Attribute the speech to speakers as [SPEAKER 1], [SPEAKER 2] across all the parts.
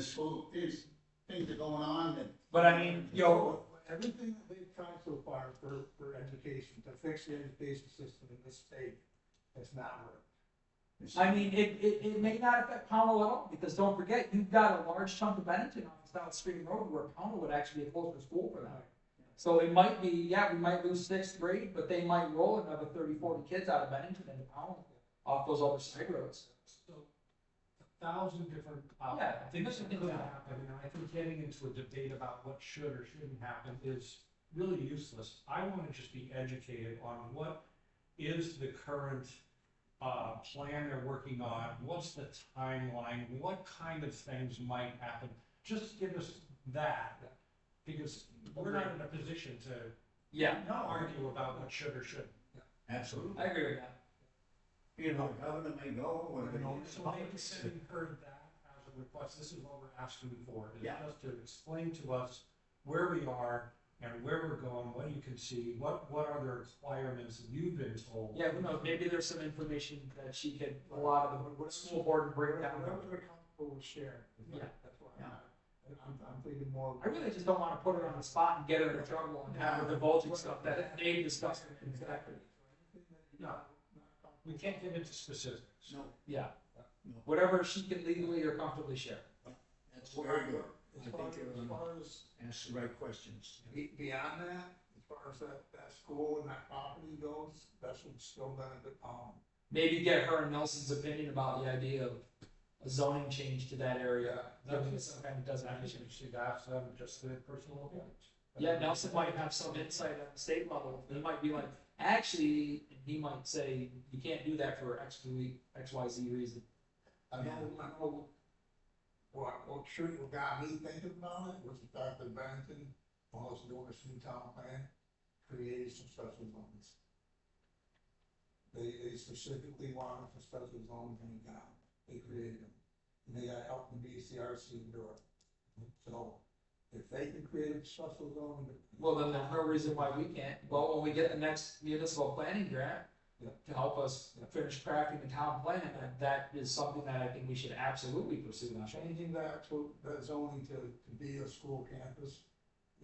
[SPEAKER 1] school, these things are going on and.
[SPEAKER 2] But I mean, you know,
[SPEAKER 3] Everything that they've tried so far for, for education, to fix the education system in this state, has not worked.
[SPEAKER 2] I mean, it, it, it may not affect Pownell at all, because don't forget, you've got a large chunk of Bennington off South Stream Road where Pownell would actually be a closer school for them. So it might be, yeah, we might lose sixth grade, but they might roll another 30, 40 kids out of Bennington into Pownell off those other side roads.
[SPEAKER 4] So, a thousand different uh,
[SPEAKER 2] Yeah,
[SPEAKER 4] things
[SPEAKER 2] different
[SPEAKER 4] that
[SPEAKER 2] things
[SPEAKER 4] could
[SPEAKER 2] happen.
[SPEAKER 4] happen, and I think getting into a debate about what should or shouldn't happen is really useless. I wanna just be educated on what is the current, uh, plan they're working on, what's the timeline, what kind of things might happen? Just give us that, because we're not in a position to
[SPEAKER 2] Yeah,
[SPEAKER 4] not argue about what should or shouldn't.
[SPEAKER 1] Absolutely.
[SPEAKER 2] I agree with that.
[SPEAKER 1] You know, governor may go or. they-
[SPEAKER 4] So maybe sending her that as a request, this is what we're asking for, is
[SPEAKER 1] Yeah.
[SPEAKER 4] just to explain to us where we are and where we're going, what you can see, what, what are the requirements that you've been told?
[SPEAKER 2] Yeah, who knows, maybe there's some information that she could, a lot of the school board and break down.
[SPEAKER 3] Whatever they're comfortable with sharing.
[SPEAKER 2] Yeah.
[SPEAKER 3] That's why
[SPEAKER 1] Yeah.
[SPEAKER 3] I'm, I'm- I'm thinking more.
[SPEAKER 2] I really just don't wanna put her on the spot and get her in trouble and have her divulging stuff that they discussed. Exactly.
[SPEAKER 4] No. We can't get into specifics.
[SPEAKER 1] No,
[SPEAKER 2] Yeah, whatever she can legally or comfortably share.
[SPEAKER 1] that's very good.
[SPEAKER 3] As
[SPEAKER 1] I
[SPEAKER 3] far,
[SPEAKER 1] think
[SPEAKER 3] as
[SPEAKER 1] you're,
[SPEAKER 3] far as
[SPEAKER 1] ask the right questions.
[SPEAKER 3] Be- Beyond that, as far as that, that school and that property goes, that's what's still done at the palm.
[SPEAKER 2] Maybe get her and Nelson's opinion about the idea of a zoning change to that
[SPEAKER 1] uh,
[SPEAKER 2] area. That was some kind of designation.
[SPEAKER 4] You should ask them just their personal opinions.
[SPEAKER 2] Yeah, Nelson might have some insight at the state level. They might be like, actually, and he might say, you can't do that for X, Y, X, Y, Z reason.
[SPEAKER 3] I know, I know what, what triggered, what got me thinking about it was the fact that Barrington, while it's doing its new town plan, created some special zones. They, they specifically wanted for special zones in town, they created them, and they got help from BCRC and Dora. So, if they can create a special zone.
[SPEAKER 2] Well, then there's no reason why we can't. Well, when we get the next municipal planning grant
[SPEAKER 3] Yeah.
[SPEAKER 2] to help us finish crafting the town plan, that, that is something that I think we should absolutely pursue. now.
[SPEAKER 3] Changing that to, the zoning to, to be a school campus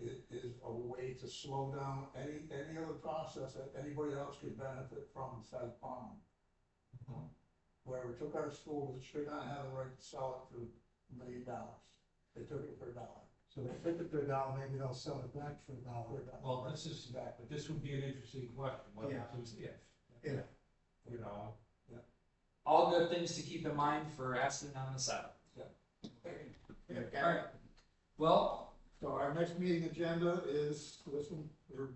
[SPEAKER 3] is, is a way to slow down any, any other process that anybody else could benefit from besides Palm. Where we took our schools, it should not have the right to sell it for a million dollars. They took it for a dollar. So they took it for a dollar, maybe they'll sell it back for a dollar.
[SPEAKER 4] Well, this is,
[SPEAKER 3] Exactly.
[SPEAKER 4] this would be an interesting question, what
[SPEAKER 1] Yeah.
[SPEAKER 4] happens if?
[SPEAKER 1] Yeah.
[SPEAKER 4] You know,
[SPEAKER 2] All good things to keep in mind for asking on the side.
[SPEAKER 1] Yeah,
[SPEAKER 2] All right. Well,
[SPEAKER 3] So our next meeting agenda is, listen, we're,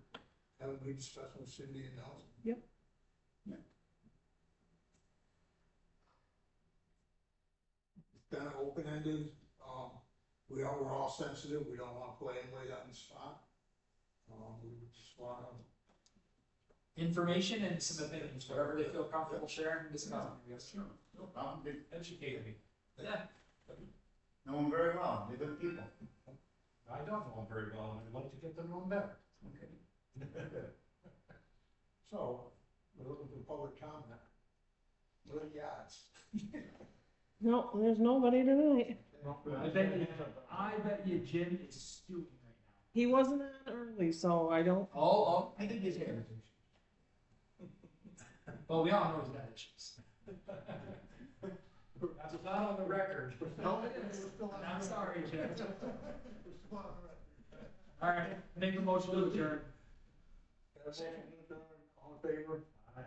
[SPEAKER 3] having a big discussion with Cindy and Nelson. Yep. It's kind of open-ended, um, we are, we're all sensitive, we don't want to play anybody out in the spot. Um, we just want to,
[SPEAKER 2] information and some opinions, whatever they feel comfortable sharing, discuss.
[SPEAKER 1] Sure, no problem. They
[SPEAKER 4] educate me,
[SPEAKER 2] Yeah,
[SPEAKER 1] know them very well. They're good people.
[SPEAKER 4] I don't know them very well, and I'd like to get to know them better.
[SPEAKER 1] Okay.
[SPEAKER 3] so, we're looking for public comment. What are the odds?
[SPEAKER 5] No, there's nobody tonight.
[SPEAKER 2] I bet you, I bet you Jim is stewing right now.
[SPEAKER 5] He wasn't on early, so I don't.
[SPEAKER 2] Oh,
[SPEAKER 1] I think it's here.
[SPEAKER 2] oh, well, we all know he's got issues.
[SPEAKER 4] That's not on the record.
[SPEAKER 2] No, it is. And I'm sorry, Jim. All right, make a motion to adjourn.
[SPEAKER 3] Got a motion, All in favor?
[SPEAKER 4] Aye.